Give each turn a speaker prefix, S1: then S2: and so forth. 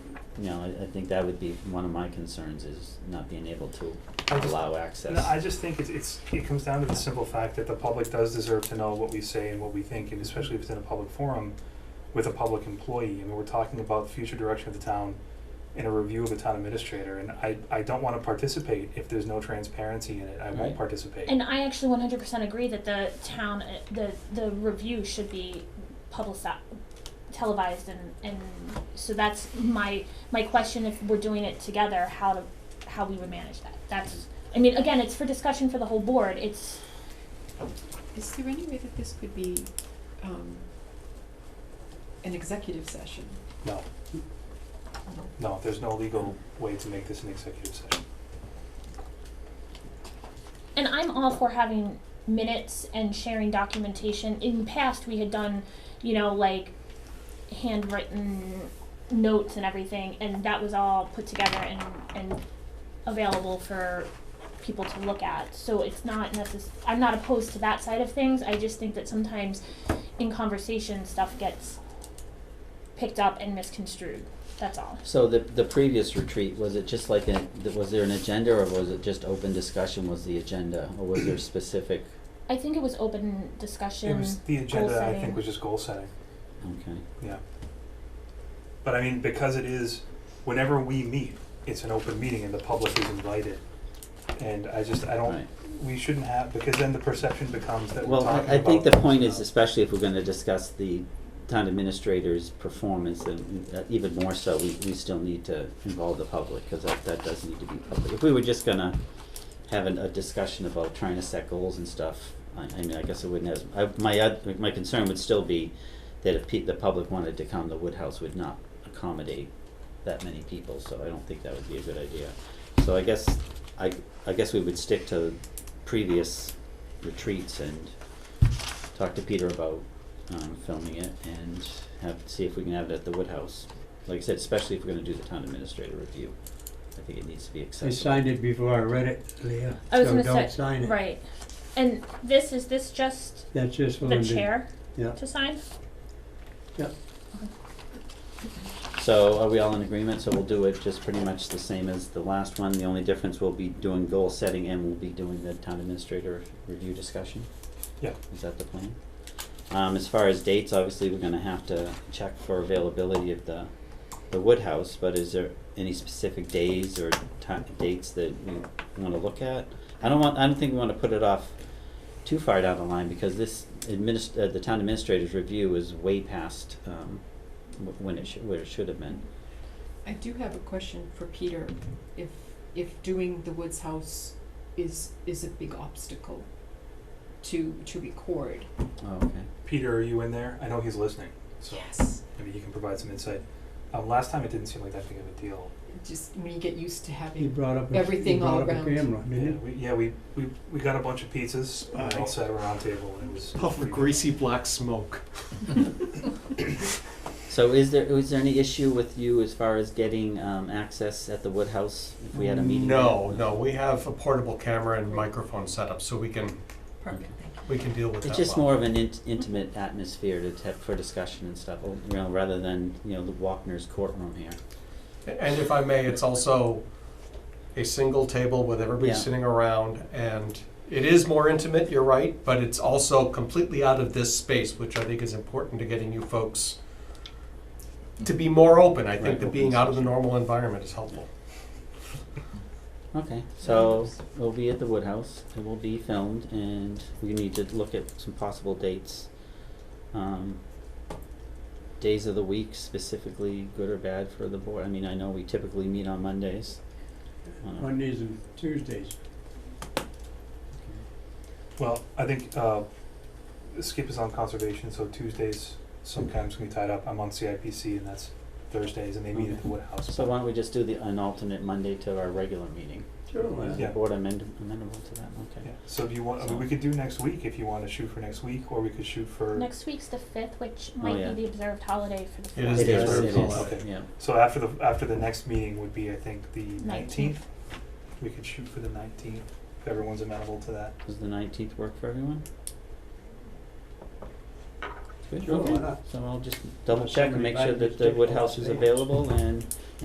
S1: you know, I, I think that would be one of my concerns is not being able to
S2: I just-
S1: allow access.
S2: No, I just think it's, it's, it comes down to the simple fact that the public does deserve to know what we say and what we think, and especially if it's in a public forum with a public employee. I mean, we're talking about the future direction of the town in a review of the town administrator, and I, I don't wanna participate if there's no transparency in it. I
S1: Right.
S2: won't participate.
S3: And I actually one hundred percent agree that the town, uh, the the review should be publicized, televised, and and so that's my my question. If we're doing it together, how to how we would manage that? That's I mean, again, it's for discussion for the whole board. It's
S4: Is there any way that this could be, um, an executive session?
S2: No. No, there's no legal way to make this an executive session.
S3: and I'm all for having minutes and sharing documentation. In the past, we had done, you know, like handwritten notes and everything, and that was all put together and and available for people to look at. So it's not necess- I'm not opposed to that side of things. I just think that sometimes in conversation stuff gets picked up and misconstrued. That's all.
S1: So the, the previous retreat, was it just like, an- th- was there an agenda or was it just open discussion was the agenda? Or was there specific,
S3: I think it was open discussion.
S2: It was, the agenda, I
S3: setting.
S2: think, was just goal setting.
S1: okay,
S2: But I mean, because it is, whenever we meet, it's an open meeting and the public is invited. And I just, I don't,
S1: right.
S2: we shouldn't have, because then the perception becomes that we're
S1: Well,
S2: talking about.
S1: I, I think the point is, especially if we're gonna discuss the town administrator's performance, then uh, even more so, we, we still need to involve the public, cause that, that does need to be public. If we were just gonna have an, a discussion about trying to set goals and stuff, I, I mean, I guess it wouldn't have, I, my, oth- my concern would still be that if pe- the public wanted to come, the Woodhouse would not accommodate that many people, so I don't think that would be a good idea. So I guess, I, I guess we would stick to previous retreats and talk to Peter about, um, filming it and have, see if we can have it at the Woodhouse. Like I said, especially if we're gonna do the town administrator review, I think it needs to be
S5: I
S1: accessible.
S5: signed it before I read it, Leah,
S3: I was
S5: so
S3: gonna
S5: don't
S3: say-
S5: sign it.
S3: Right. And this, is this just
S5: That's just for
S3: the
S5: Linda.
S3: chair
S5: Yeah.
S3: to sign?
S1: So are we all in agreement? So we'll do it just pretty much the same as the last one. The only difference we'll be doing goal setting and we'll be doing the town administrator review discussion?
S2: Yeah.
S1: Is that the plan? Um, as far as dates, obviously, we're gonna have to check for availability of the, the Woodhouse, but is there any specific days or ti- dates that we wanna look at? I don't want, I don't think we wanna put it off too far down the line because this adminis- uh, the town administrator's review is way past, um, wh- when it should, where it should have been.
S4: I do have a question for Peter, if, if doing the Woods House is, is a big obstacle to, to record.
S1: Oh, okay.
S2: Peter, are you in there? I know he's listening, so
S4: Yes.
S2: maybe you can provide some insight. Um, last time it didn't seem like that big of a deal.
S4: Just when you get used to
S5: He
S4: having,
S5: brought up, a- he
S4: Everything all
S5: brought up a
S4: around.
S5: camera, didn't
S2: Yeah,
S5: he?
S2: we, yeah, we, we, we got a bunch of pizzas, and we all sat around a table, and it was.
S6: puff of greasy black smoke.
S1: So is there, is there any issue with you as far as getting, um, access at the Woodhouse if we had a meeting?
S6: No,
S1: there?
S6: no, we have a portable camera and microphone setup, so we can
S4: perfect, thank you.
S6: we can deal with that.
S1: It's just
S6: well.
S1: more of an int- intimate atmosphere to, have for discussion and stuff, oh, you know, rather than, you know, the Walkner's courtroom here.
S6: And if I may, it's also a single table with everybody
S1: Yeah.
S6: sitting around, and it is more intimate. You're right, but it's also completely out of this space, which I think is important to getting you folks to be more open. I think
S1: Right,
S6: that
S1: open
S6: being out of the
S1: session.
S6: normal environment is helpful.
S1: Okay, so we'll be at the Woodhouse, it will be filmed, and we need to look at some possible dates. Um, days of the week specifically, good or bad for the board, I mean, I know we typically meet on Mondays. Uh,
S5: Mondays and Tuesdays.
S2: Well, I think, uh, Skip is on conservation, so Tuesdays sometimes can be tied up. I'm on CIPC, and that's Thursdays, and they meet at the Woodhouse.
S1: So why don't we just do the, an alternate Monday to our regular meeting?
S5: Sure. why
S1: Is
S5: not?
S1: the
S2: Yeah.
S1: board amend- amendable to that? Okay.
S2: Yeah, so do you want, I mean, we could do next week if you wanna shoot for next week, or we could shoot for,
S3: Next week's the fifth, which
S1: Oh,
S3: might
S1: yeah.
S3: be the observed holiday for the fourth.
S6: It is the observed
S1: It
S6: holiday.
S1: is, it is, yeah.
S2: so after the, after the next meeting would be, I think, the nineteenth.
S3: Nineteenth.
S2: We could shoot for the nineteenth, if everyone's amenable to that.
S1: Does the nineteenth work for everyone? Good,
S5: Sure, why
S1: okay.
S5: not?
S1: So I'll just double
S5: Unless
S1: check and
S5: somebody
S1: make sure
S5: invited me
S1: that
S5: to
S1: the
S5: take a
S1: Woodhouse is
S5: holiday.
S1: available and